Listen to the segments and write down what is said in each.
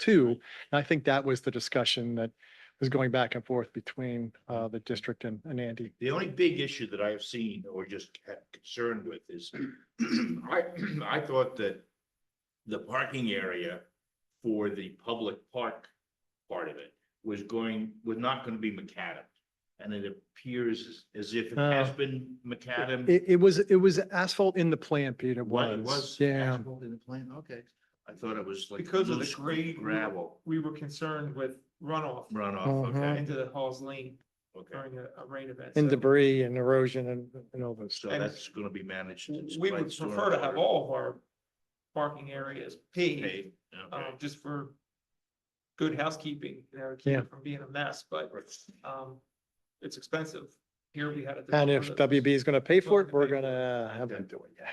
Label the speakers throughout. Speaker 1: two. And I think that was the discussion that was going back and forth between uh, the district and and Andy.
Speaker 2: The only big issue that I've seen or just had concern with is, I, I thought that the parking area for the public park part of it was going, was not gonna be macadam. And it appears as- as if it has
Speaker 1: Oh.
Speaker 2: been macadam.
Speaker 1: It, it was, it was asphalt in the plant, Pete. It
Speaker 2: Well, it
Speaker 1: was. Yeah.
Speaker 2: asphalt In the plan, okay. I thought it was like
Speaker 3: Because of the
Speaker 2: loose
Speaker 3: grade.
Speaker 2: gravel
Speaker 3: We were concerned with runoff
Speaker 1: Uh-huh.
Speaker 2: runoff, okay,
Speaker 3: into the Halls Lane
Speaker 2: okay.
Speaker 3: during a, a rain event.
Speaker 1: And
Speaker 3: so
Speaker 1: debris and erosion and, and all those.
Speaker 2: So
Speaker 3: And-
Speaker 2: that's gonna be managed. it's
Speaker 3: We
Speaker 2: by
Speaker 3: would prefer to have
Speaker 2: stormwater.
Speaker 3: all of our parking areas paved,
Speaker 2: Okay,
Speaker 3: um, just for good housekeeping, you know, keep
Speaker 1: Yeah.
Speaker 3: it from being a mess, but, um, it's expensive. Here we had. a
Speaker 1: And if WB is going to pay for it, we're going to have them do it. Yeah.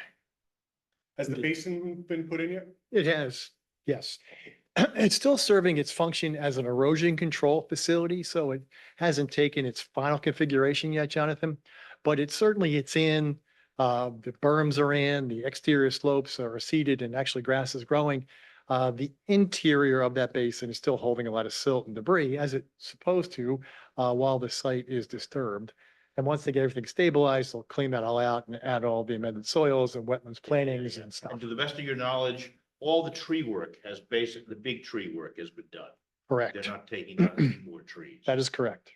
Speaker 4: Has the basin been put in yet?
Speaker 1: It has, yes. It's still serving its function as an erosion control facility, so it hasn't taken its final configuration yet, Jonathan. But it certainly, it's in, uh, the berms are in, the exterior slopes are seeded and actually grass is growing. Uh, the interior of that basin is still holding a lot of silt and debris as it's supposed to, uh, while the site is disturbed. And once they get everything stabilized, they'll clean that all out and add all the amended soils and wetlands plantings and stuff.
Speaker 2: And to the best of your knowledge, all the tree work has basic, the big tree work has been done. They're
Speaker 1: Correct.
Speaker 2: not taking out any more trees.
Speaker 1: That is correct.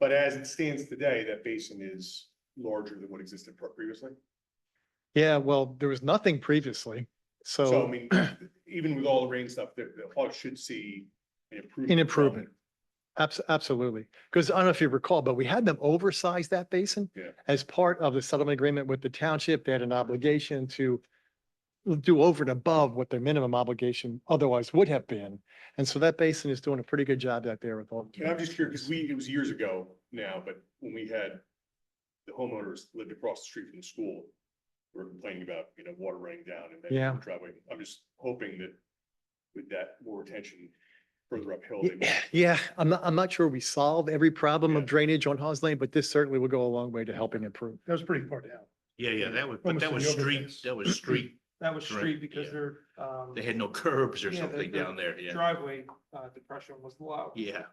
Speaker 4: But as it stands today, that basin is larger than what existed pre- previously.
Speaker 1: Yeah, well, there was nothing previously.
Speaker 4: So I
Speaker 1: So,
Speaker 4: mean, even with all the rain stuff, the, the Hawks should see an improvement.
Speaker 1: An
Speaker 4: from-
Speaker 1: improvement. abs- absolutely. Because I don't know if you recall, but we had them oversize that basin.
Speaker 4: Yeah.
Speaker 1: As part of the settlement agreement with the township, they had an obligation to do over and above what their minimum obligation otherwise would have been. And so that basin is doing a pretty good job out there with all.
Speaker 4: And I'm just curious, because we, it was years ago now, but when we had the homeowners lived across the street from the school, we were complaining about, you know, water running down in
Speaker 1: Yeah.
Speaker 4: that driveway. I'm just hoping that with that more attention further uphill, they might
Speaker 1: Yeah, I'm not, I'm not sure we solve every problem of
Speaker 4: Yeah.
Speaker 1: drainage on Hawes Lane, but this certainly will go a long way to helping improve.
Speaker 5: That was pretty far down.
Speaker 2: Yeah, yeah, that was, but that was
Speaker 5: Almost the
Speaker 2: street,
Speaker 5: overpass.
Speaker 2: that was street.
Speaker 3: That was
Speaker 2: Correct,
Speaker 3: street because
Speaker 2: yeah.
Speaker 3: their, um,
Speaker 2: They had no curbs or
Speaker 3: Yeah, the-
Speaker 2: something
Speaker 3: the
Speaker 2: down there, yeah.
Speaker 3: driveway, uh, depression was low.
Speaker 2: Yeah,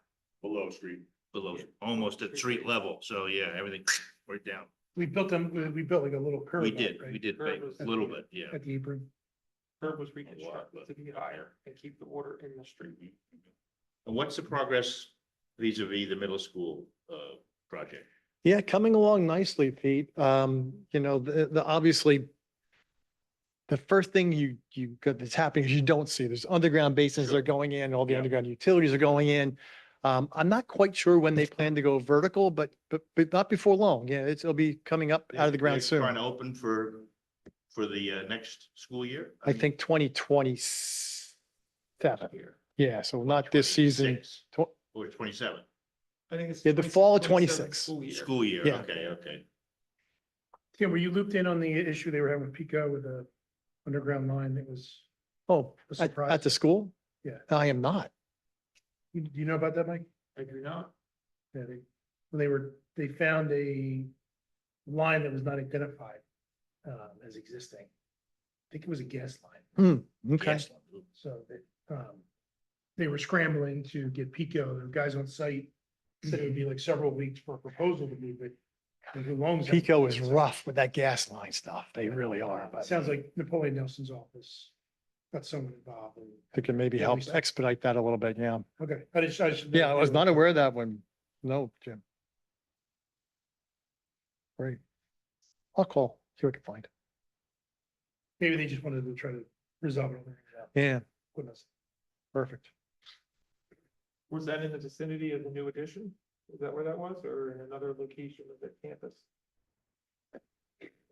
Speaker 4: below street.
Speaker 2: below, almost at street level. So yeah, everything right down.
Speaker 5: We built them, we- we built like a little curve.
Speaker 2: We
Speaker 5: out,
Speaker 2: did,
Speaker 5: right,
Speaker 2: we did,
Speaker 3: Curb
Speaker 2: ba-
Speaker 3: was-
Speaker 2: a little bit, yeah.
Speaker 5: At the apron.
Speaker 3: Curb was
Speaker 2: but-
Speaker 3: reconstructed to be higher and keep the water in the street.
Speaker 2: And what's the progress vis a vis the middle school, uh, project?
Speaker 1: Yeah, coming along nicely, Pete. Um, you know, the, the, obviously, the first thing you, you, got that's happening is you don't see, there's underground basins that are going in, all the
Speaker 2: Yeah.
Speaker 1: underground utilities are going in. Um, I'm not quite sure when they plan to go vertical, but, but, but not before long. Yeah, it's, it'll be coming up out of the ground
Speaker 2: They're Trying
Speaker 1: soon.
Speaker 2: to open for, for the, uh, next school year?
Speaker 1: I think twenty twenty-seven.
Speaker 3: Here.
Speaker 1: Yeah, so not this season.
Speaker 2: 26
Speaker 1: Tw-
Speaker 2: Or Oh, twenty-seven.
Speaker 3: I think it's.
Speaker 1: Yeah, the fall of
Speaker 3: 27
Speaker 1: 26.
Speaker 3: school year.
Speaker 2: School year,
Speaker 1: Yeah.
Speaker 2: okay, okay.
Speaker 5: Tim, were you looped in on the issue they were having with Pico with the underground line that was,
Speaker 1: Oh,
Speaker 5: A
Speaker 1: at,
Speaker 5: surprise.
Speaker 1: at the school?
Speaker 5: Yeah.
Speaker 1: I am not.
Speaker 5: you- do you know about that, Mike?
Speaker 3: I do not.
Speaker 5: Yeah, they, well, they were, they found a line that was not identified um, as existing. I think it was a gas line,
Speaker 1: Okay.
Speaker 2: Yes.
Speaker 5: so that, um, they were scrambling to get Pico, the guys on site said it would be like several weeks for a proposal to move it. and who owns that?
Speaker 1: Pico is rough with that gas line stuff. They really are.
Speaker 5: It
Speaker 1: but-
Speaker 5: Sounds like Napoleon Nelson's office got someone involved. and-
Speaker 1: I think it maybe
Speaker 5: Yeah, we
Speaker 1: helps
Speaker 5: saw-
Speaker 1: expedite that a little bit, yeah.
Speaker 5: Okay, I just, I just.
Speaker 1: Yeah, I was not aware of that one. No, Jim. Great. I'll call, see what I can find.
Speaker 5: Maybe they just wanted to try to resolve it. on their own.
Speaker 1: Yeah,
Speaker 5: Goodness.
Speaker 1: perfect.
Speaker 3: Was that in the vicinity of the new addition? Is that where that was or in another location of the campus?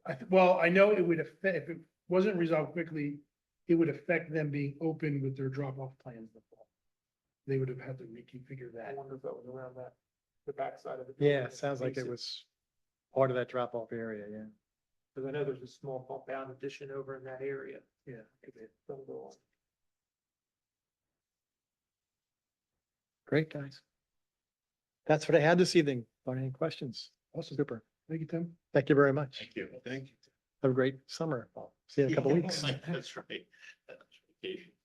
Speaker 5: I, th- well, I know it would affect, if it wasn't resolved quickly, it would affect them being open with their drop off plans. in the fall. They would have had to reconfigure
Speaker 3: I
Speaker 5: that.
Speaker 3: wonder if that was around that, the backside of the.
Speaker 1: Yeah, sounds like it was part of that drop off area, yeah.
Speaker 3: Because I know there's a small compound addition over in that area. Yeah. Don't go on.
Speaker 1: Great, guys. That's what I had this evening. Are any questions?
Speaker 5: Awesome.
Speaker 1: Super.
Speaker 5: Thank you, Tim.
Speaker 1: Thank you very much.
Speaker 4: Thank you. Thank you.
Speaker 1: Have a great summer. See you in a couple weeks.
Speaker 2: That's right. That's vacation.